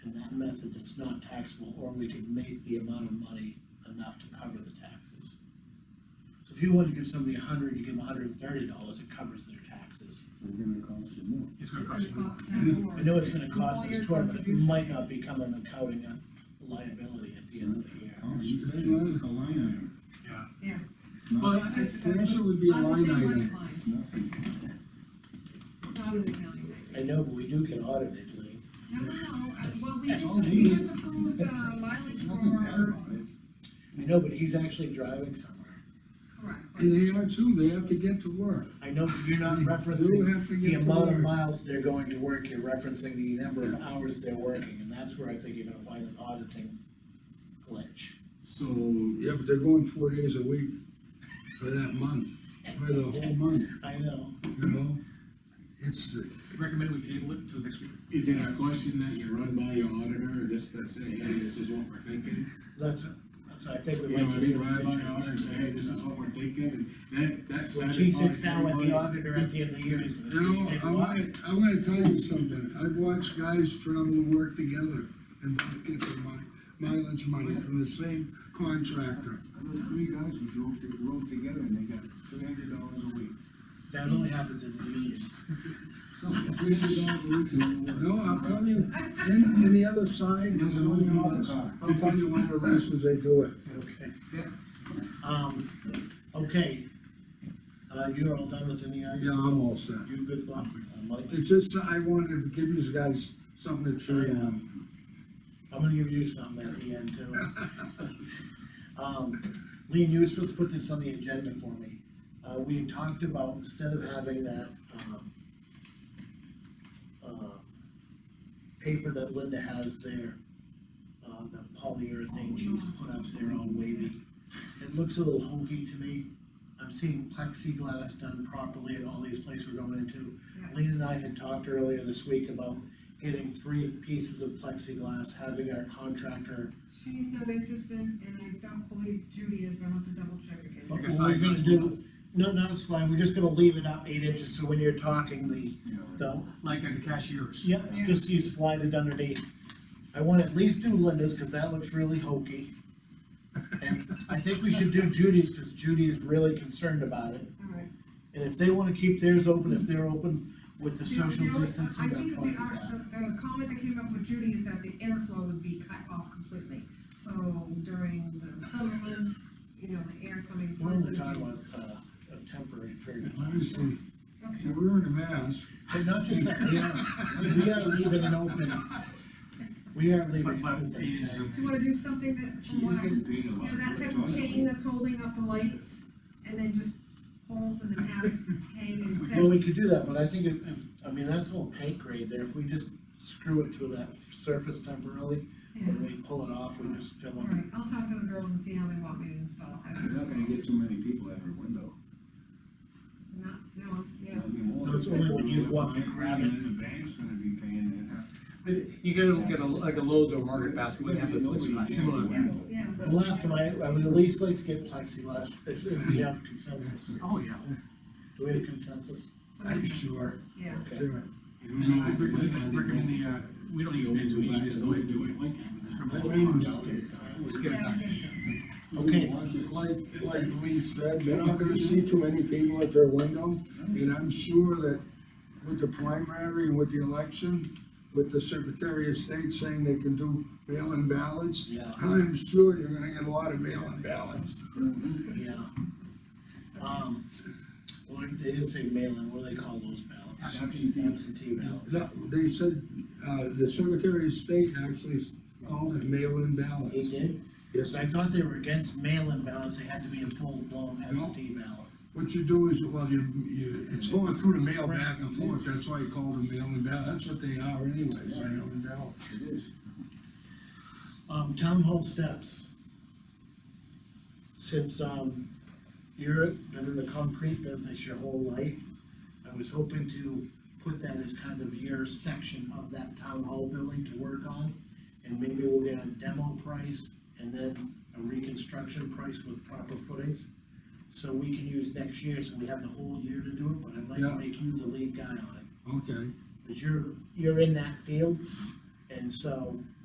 method that's not taxable, or we could make the amount of money enough to cover the taxes. So if you want to give somebody a hundred, you give them hundred and thirty dollars, it covers their taxes. We're gonna cost you more. It's gonna It's cost gonna you more. cost town more. I know it's gonna cost Employer us toward, but it contribution. might not become an accounting liability at the end of the year. Oh, you said it was a line item. Yeah, Yeah. It's not- Well, I- I- it's- it also would be a I line see what item. line. Nothing. It's not an accounting item. I know, but we do get audited, Lee. No, no, no, uh, well, we just, Oh, we geez. just approved, uh, mileage Nothing bad for, about it. I know, but he's actually driving somewhere. correct. And they are too, they have to get to work. I know, but you're not You referencing have to the get to amount of work. miles they're going to work, you're referencing the number of hours they're working, and that's where I think you're gonna find an auditing glitch. So, Yeah, but they're going four days a week for that month, for the whole month, I know, you know? It's, the- Recommend we table it till next week. Is it a question that you run by your auditor, or just to say, hey, this is what we're thinking? that's, that's, I think we You know, I might be mean, in a run by your auditor and say, hey, this is situation. what we're thinking, and that, that When she sits satisfies down with the everybody. auditor at the end of the year, he's gonna you know, say, I wanna, I wanna tell you something, I've watched guys travel and work together and both get their mi- mileage money from the same contractor. I know three guys who drove, to- rode together and they got three hundred dollars a week. That only happens in the union. Three hundred dollars a week. No, I'll tell you, and, and the other side, There's is a on million the dollar office, car. I'll tell you one of the reasons they do it. Okay. Yeah. Um, okay, uh, you're all done with any Yeah, item? I'm all set. You good luck, uh, Mike. It's just, I wanted to give you guys something to chew on. I'm gonna give you something at the end too. Um, Lean, you were supposed to put this on the agenda for me. Uh, we had talked about, instead of having that, um, uh, paper that Linda has there, uh, the polyurethane she's put up there all wavy. It looks a little hokey to me. I'm seeing plexiglass done properly at all these places we're going into. Yeah. Lean and I had talked earlier this week about getting three pieces of plexiglass, having our contractor. She's not interested, and I don't believe Judy is, but I'll have to double check again. But a what slide we're gonna glass do, no, not a slide, we're just gonna leave it out eight inches, so when you're talking, the, the, Like at the cashiers. yeah, it's just you slide it underneath. I wanna at least do Linda's, cause that looks really hokey. And I think we should do Judy's, cause Judy is really concerned about it, All right. and if they wanna keep theirs open, if they're open with the You know, social you know, distancing, I I'm think fine with the, uh, that. the the comment that came up with Judy is that the airflow would be cut off completely, so during the summer months, you know, the air coming We're through. only would talking be- about, uh, a temporary period. of time. Obviously, Okay. you're wearing a mask. But not just that, we are, we are leaving it open. We are leaving But, it but open. eight inches of- Do you wanna do something that, She from is what I'm getting paid a You lot. know, that We're type of trying to- chain that's holding up the lights, and then just holes in the attic, hang and set. Well, we could do that, but I think if, if, I mean, that's all paint grade there, if we just screw it to that surface temporarily, Yeah. when we pull it off, we just fill All it. right, I'll talk to the girls and see how they want me to install You're not gonna it. get too many people at her window. Not, no, yeah. There'll be more. No, it's only when you go up and grab it. And then the bank's gonna be paying it. But You gotta look at a, like a Lowe's or Market Basket, we have the plexiglass, similar. Yeah, yeah. The last one, I, I would at least like to get plexiglass, if, if we have consensus. Do Oh, yeah. we have consensus? Sure, Yeah, Okay. sure. You don't And know I if recommend, it's- recommend the, uh, we don't need You'll to, we go need back to to just the do way it. to do it like that. From That the- means- just get it done. Just get it yeah, done. yeah. Okay, Like, like Lee said, you're not gonna see too many people at their window, and I'm sure that with the primary and with the election, with the Secretary of State saying they can do mail-in ballots, Yeah. I'm sure you're gonna get a lot of mail-in ballots. yeah. Um, well, they didn't say mail-in, what do they call those ballots? Absentee. Absentee ballots. No, they said, uh, the Secretary of State actually called it mail-in He ballots. did? Yes, I thought they were against mail-in ballots, they had to be a full-blown absentee ballot. what you do is, well, you, you, it's going through the mail back and forth, that's why you call them mail-in ballot, that's what they are anyways, mail-in ballot. It is. Um, town hall steps. Since, um, you're, been in the concrete business your whole life, I was hoping to put that as kind of your section of that town hall building to work on. And maybe we'll get a demo price and then a reconstruction price with proper footings. So we can use next year, so we have the whole year to do it, but I'd like Yeah. to make you the lead guy on it. Okay. because you're, you're in that field, and so